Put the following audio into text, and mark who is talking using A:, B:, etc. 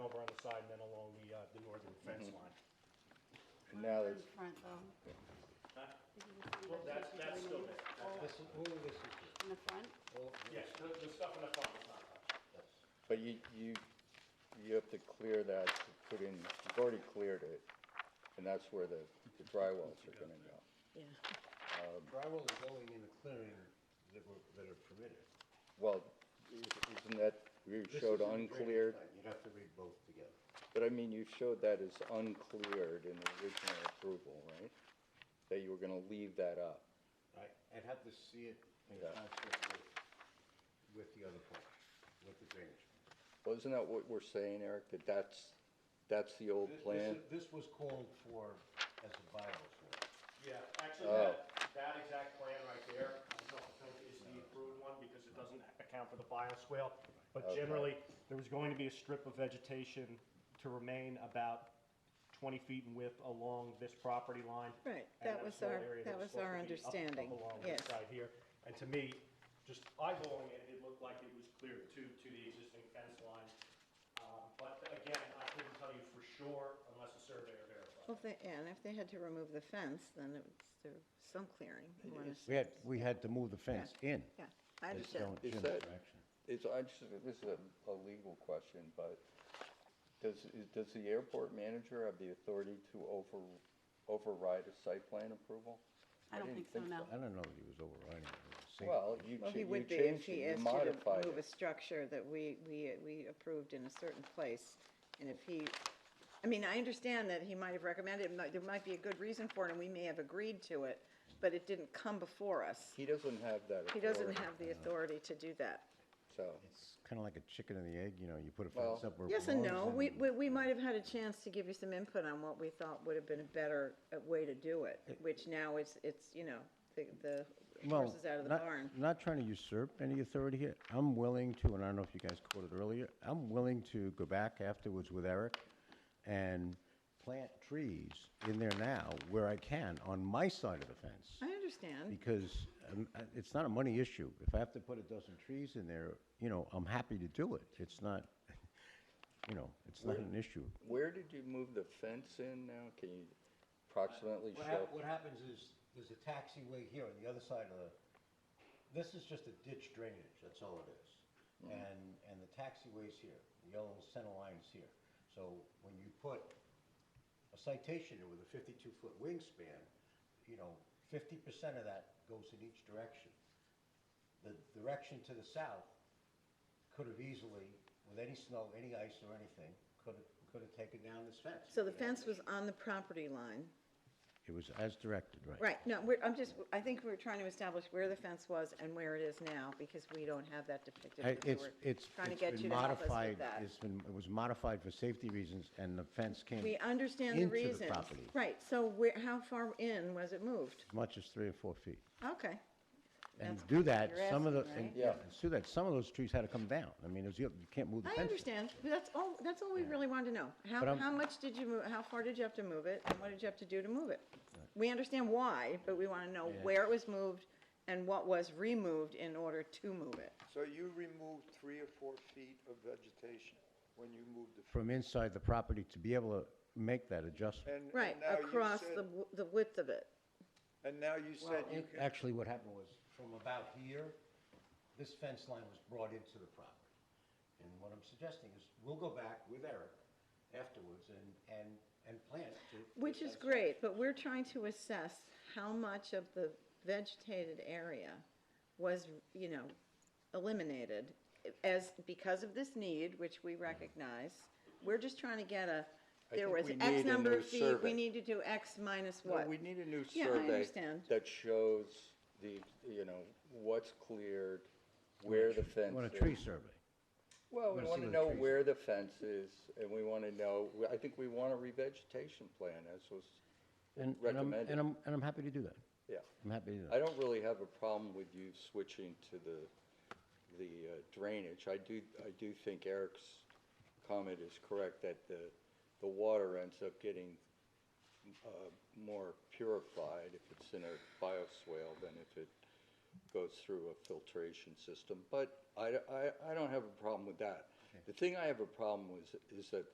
A: uh, northern fence line.
B: And now
C: In
B: there's,
C: front though.
A: Huh?
C: If you can see
A: Well,
C: those
A: that's,
C: pictures
A: that's
C: right
A: still
C: in
A: there.
D: This is, all this is,
C: In the front,
D: all,
A: Yes, the, the stuff in the front is not touched.
B: but you, you, you have to clear that to put in, you've already cleared it, and that's where the, the drywalls are gonna go.
E: Yeah.
D: drywall is going in the clearing that were, that are permitted.
B: Well, isn't that, you
D: This
B: showed
D: is in the
B: uncleared,
D: drainage plan. You'd have to read both together.
B: but I mean, you showed that as uncleared in the original approval, right? That you were gonna leave that up.
D: I, I'd have to see it in
B: Yeah.
D: concert with, with the other plan, with the drainage. plan.
B: Well, isn't that what we're saying, Eric, that that's, that's the old
D: This- this
B: plan?
D: is- This was called for as a bylaw.
A: Yeah, actually, that, that exact plan right there, I don't think is the approved one because it doesn't account for the bioswale. But
B: Okay.
A: generally, there was going to be a strip of vegetation to remain about twenty feet in width along this property line.
E: Right,
A: and
E: that
A: a
E: was
A: small
E: our-
A: area
E: that was
A: supposed to
E: our
A: be up- up
E: understanding,
A: along this
E: yes.
A: Side here. And to me, just eyeballing it, it looked like it was clear to, to the existing fence line. Um, But again, I couldn't tell you for sure unless the surveyor verified.
E: Well, if they, yeah, and if they had to remove the fence, then it's, there's some clearing. you wanna s-
D: We had, we had to move the fence in.
E: Yeah, I understand.
B: Is that- It's, I just, this is a, a legal question, but does, is- does the airport manager have the authority to over, override a site plan approval?
C: I don't
B: didn't
C: think so, no.
D: I don't know that he was overriding it. It was a safety-
B: Well, you,
E: Well,
B: cha-
E: he
B: you
E: would
B: changed it,
E: be if he
B: you
E: asked you
B: modified
E: to move a
B: it.
E: structure that we, we, we approved in a certain place. And if he, I mean, I understand that he might have recommended, it, might- there might be a good reason for it, and we may have agreed to it, but it didn't come before us.
B: He doesn't have that authority.
E: He doesn't have the authority to do that.
B: So,
D: It's kind of like a chicken and the egg, you know, you put a
B: Well-
D: fence up where it belongs.
E: Yes and no, we,
D: and-
E: we, we might have had a chance to give you some input on what we thought would have been a better uh, way to do it, which now it's, it's, you know, the, the
F: Well,
E: horse is out of the
F: not-
E: barn.
F: Not trying to usurp any authority here. I'm willing to, and I don't know if you guys quoted earlier, I'm willing to go back afterwards with Eric and plant trees in there now where I can on my side of the fence.
E: I understand,
F: Because um, uh, it's not a money issue. If I have to put a dozen trees in there, you know, I'm happy to do it. It's not, you know, it's not an issue.
B: where did you move the fence in now? Can you approximately
D: What
B: show?
D: hap- What happens is, there's a taxiway here on the other side of the, this is just a ditch drainage, that's all it is. And, and the taxiway's here, the yellow center line's here. So when you put a citation in with a fifty-two foot wingspan, you know, fifty percent of that goes in each direction. The direction to the south could have easily, with any snow, any ice or anything, could have, could have taken down this fence.
E: so the fence was on the property line,
F: It was as directed, right?
E: right, no, we're, I'm just, I think we're trying to establish where the fence was and where it is now, because we don't have that depicted.
F: I-
E: here, so
F: It's,
E: we're
F: it's,
E: Trying to
F: it's
E: get
F: been
E: you to help us
F: modified,
E: with that.
F: it's been, it was modified for safety reasons, and the fence came
E: We understand the
F: into the
E: reasons.
F: property.
E: Right, so where, how far in was it moved?
F: as much as three or four feet.
E: Okay,
F: And
E: That's
F: to do that,
E: you're
F: some of the,
E: asking,
F: and
E: right?
B: Yeah.
F: and to do that, some of those trees had to come down. I mean, it was, you you can't move the fence.
E: I understand, but that's all, that's all we really wanted to know.
F: But
E: How,
F: I'm-
E: how much did you move, how far did you have to move it, and what did you have to do to move it? We understand why, but we want to know where it was moved and what was removed in order to move it.
G: So you removed three or four feet of vegetation when you moved the,
F: From inside the property to be able to make that adjustment.
G: and. and
E: Right,
G: now you
E: across
G: said-
E: the, w- the width of it.
G: And now you said you can,
D: Actually, what happened was, from about here, this fence line was brought into the property. And what I'm suggesting is, we'll go back with Eric afterwards and, and, and plant to.
E: Which is great, but we're trying to assess how much of the vegetated area was, you know, eliminated as, because of this need, which we recognize. We're just trying to get a,
B: Mm-hmm. I
E: there
B: think
E: was
B: we need
E: X
B: a
E: number
B: new
E: of feet, we
B: survey.
E: need to do X minus
B: No,
E: what?
B: We need a new
E: Yeah, I
B: survey.
E: understand.
B: That shows the, you know, what's cleared, where the fence is.
F: On a tree survey.
B: Well,
F: Wanna
B: we
F: see
B: want
F: where
B: to
F: the
B: know
F: trees
B: where the fence is, and we want to know, we- I think we want a revegetation plan, as was,
F: And, and I'm,
B: Recommended.
F: and I'm, and I'm happy to do that.
B: yeah.
F: I'm happy to do
B: I
F: that.
B: don't really have a problem with you switching to the, the uh, drainage. I do, I do think Eric's comment is correct, that the, the water ends up getting uh, more purified if it's in a bioswale than if it goes through a filtration system. But I, I, I don't have a problem with that. The thing I have a problem with is that